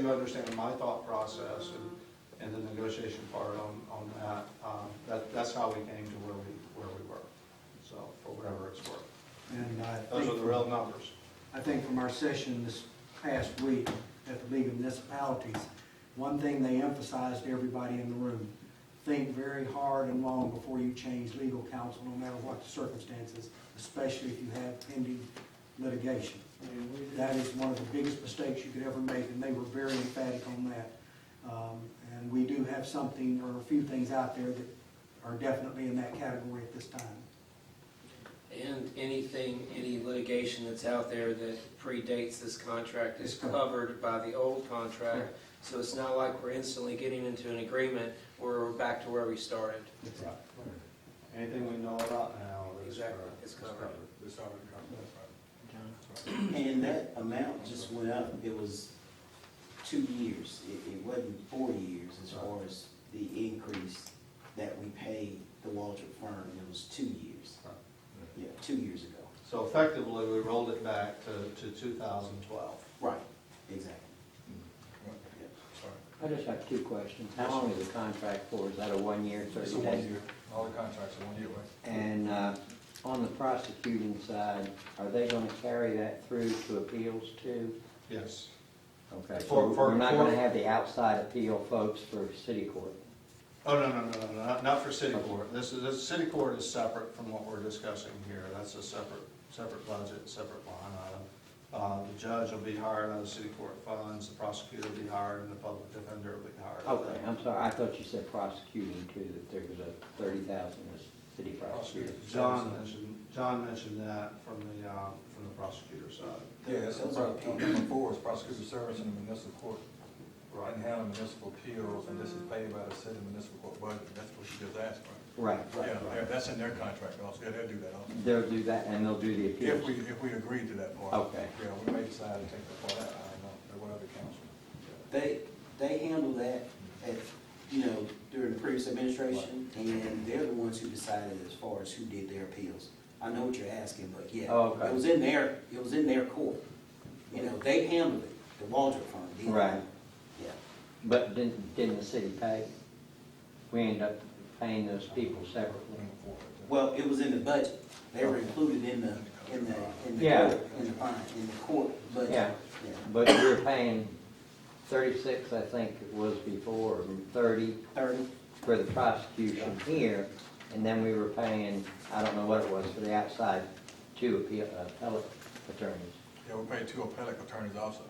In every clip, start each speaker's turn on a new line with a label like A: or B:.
A: you understand my thought process and, and the negotiation part on, on that. Um, That, that's how we came to where we, where we were, so, for whatever it's worth.
B: And I
A: Those are
B: think,
A: the real numbers.
B: I think from our session this past week at the League of Municipalities, one thing they emphasized to everybody in the room, think very hard and long before you change legal counsel, no matter what the circumstances, especially if you have pending litigation. That is one of the biggest mistakes you could ever make, and they were very emphatic on that. Um, And we do have something, or a few things out there that are definitely in that category at this time.
C: And anything, any litigation that's out there that predates this contract is
B: It's covered.
C: covered by the old contract.
B: Correct.
C: So it's not like we're instantly getting into an agreement where we're back to where we started.
A: Anything we know about now is.
C: Exactly, it's covered.
D: It's already covered.
E: And that amount just went up, it was two years, it, it wasn't four years as far as the increase that we paid the Waltrip firm, it was two years.
A: Right.
E: Yeah, two years ago.
A: So effectively, we rolled it back to, to 2012.
E: Right. Exactly.
D: Mm.
F: I just have two questions. How long is the contract for? Is that a one-year,
D: It's a
F: thirty
D: one
F: days?
D: year, all the contracts are one year, right?
F: And uh, on the prosecuting side, are they going to carry that through to appeals too?
A: Yes. For-
F: Okay, so
A: for-
F: we're not going
A: for-
F: to have the outside appeal folks for city court?
A: Oh, no, no, no, no, not, not for city court. This is, this, city court is separate from what we're discussing here. That's a separate, separate budget, separate line item. Uh, the judge will be hired out of city court funds, the prosecutor will be hired, and the public defender will be hired. out of
F: Okay,
A: that.
F: I'm sorry, I thought you said prosecuting too, that there was a thirty thousand was city prosecutor.
A: John mentioned, John mentioned that from the, uh, from the prosecutor side.
D: Yeah, that's
E: Those are-
D: on number four, is prosecutor service in the municipal court,
A: Right.
D: and handling municipal appeals, and this is paid by the city municipal court budget, that's what she just asked for.
F: Right,
D: Yeah, yeah, that's in their contract also, yeah, they'll do that also.
F: they'll do that and they'll do the
D: If we,
F: appeals.
D: if we agree to that part.
F: Okay.
D: Yeah, we may decide to take that part out, I don't know, or whatever council.
E: They, they handle that at, you know, during the previous administration, and they're the ones who decided as far as who did their appeals. I know what you're asking, but yeah.
F: Oh, okay.
E: It was in their, it was in their court. You know, they handled it, the Waldrop firm did.
F: Right.
E: Yeah.
F: But didn't, didn't the city pay? We end up paying those people separately.
D: Number four, right there.
E: Well, it was in the budget. They were included in the, in the, in the
F: Yeah.
E: court, in the fine, in the court budget.
F: Yeah.
E: Yeah.
F: But we're paying thirty-six, I think it was before, and thirty
E: Thirty,
F: for the prosecution here, and then we were paying, I don't know what it was, for the outside two appeal- uh, appellate attorneys.
D: Yeah, we pay two appellate attornees also.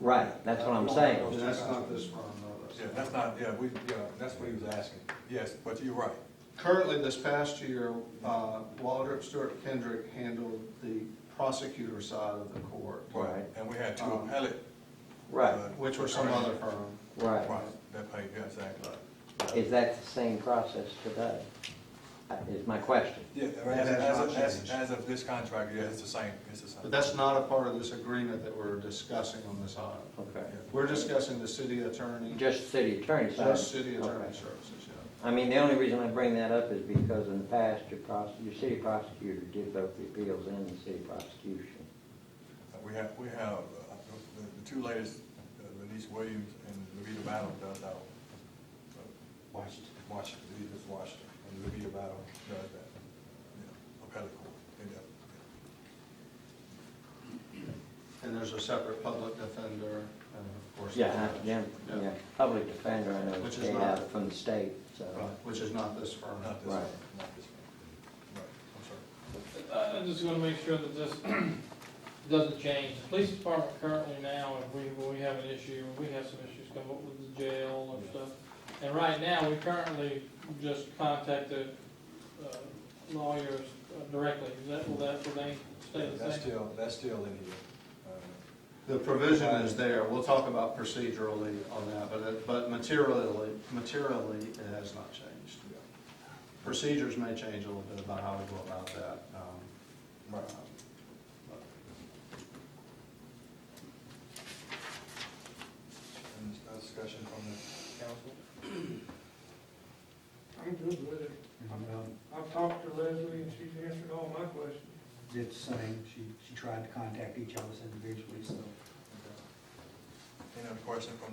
F: Right, that's what I'm saying.
A: And that's not this firm, though.
D: Yeah, that's not, yeah, we, yeah, that's what he was asking, yes, but you're right.
A: Currently, this past year, uh, Waldrop Stewart Kendrick handled the prosecutor side of the court,
F: Right.
D: And we had two
A: Um,
D: appellate. uh,
F: Right,
A: which was some other firm.
F: right.
D: Right, that paid, yeah, exactly.
F: Is that the same process today? Uh, Is my question.
D: Yeah,
A: Right,
D: as,
A: that's
D: as,
A: not
D: of- as,
A: changed.
D: as of this contract, yeah, it's the same, it's the same.
A: But that's not a part of this agreement that we're discussing on this item.
F: Okay.
A: We're discussing the city attorney,
F: Just city attorney side?
A: just city attorney
F: Okay.
A: services, yeah.
F: I mean, the only reason I bring that up is because in the past, your prose, your city prosecutor did both the appeals and the city prosecution.
D: We have, we have, uh, the, the two latest, uh, Denise Williams and Levita Battle does out. Washington. Washington, Levita's Washington, and Levita Battle does that, yeah, appellate court, they do.
A: And there's a separate public defender, and of course. the
F: Yeah,
A: judge.
F: yeah,
A: Yeah.
F: yeah, public defender, I know,
A: Which
F: is
A: is
F: paid
A: not-
F: out from the state, so.
A: Right, Which is not this firm.
D: Not this one,
F: Right.
D: not this one. Right, I'm sorry.
G: Uh, I I just want to make sure that this doesn't change. The police department currently now, if we, when we have an issue, we have some issues come up with the jail and stuff. And right now, we currently just contacted uh, lawyers uh, directly. Is that, will that remain, stay
D: Yeah,
G: the
D: That's
G: same?
D: still, that's still in here. Uh,
A: The provision is there, we'll talk about procedurally on that, but, it- but materially, materially, it has not changed.
D: yeah.
A: Procedures may change a little bit about how we go about that. um,
D: Right.
A: um, but-
D: Any other discussion from the council?
H: I'm good with it.
B: Mm-hmm.
H: Um, I've talked to Leslie and she's answered all my questions.
B: Did the same, she, she tried to contact each of us individually, so.
D: Okay. Any other question from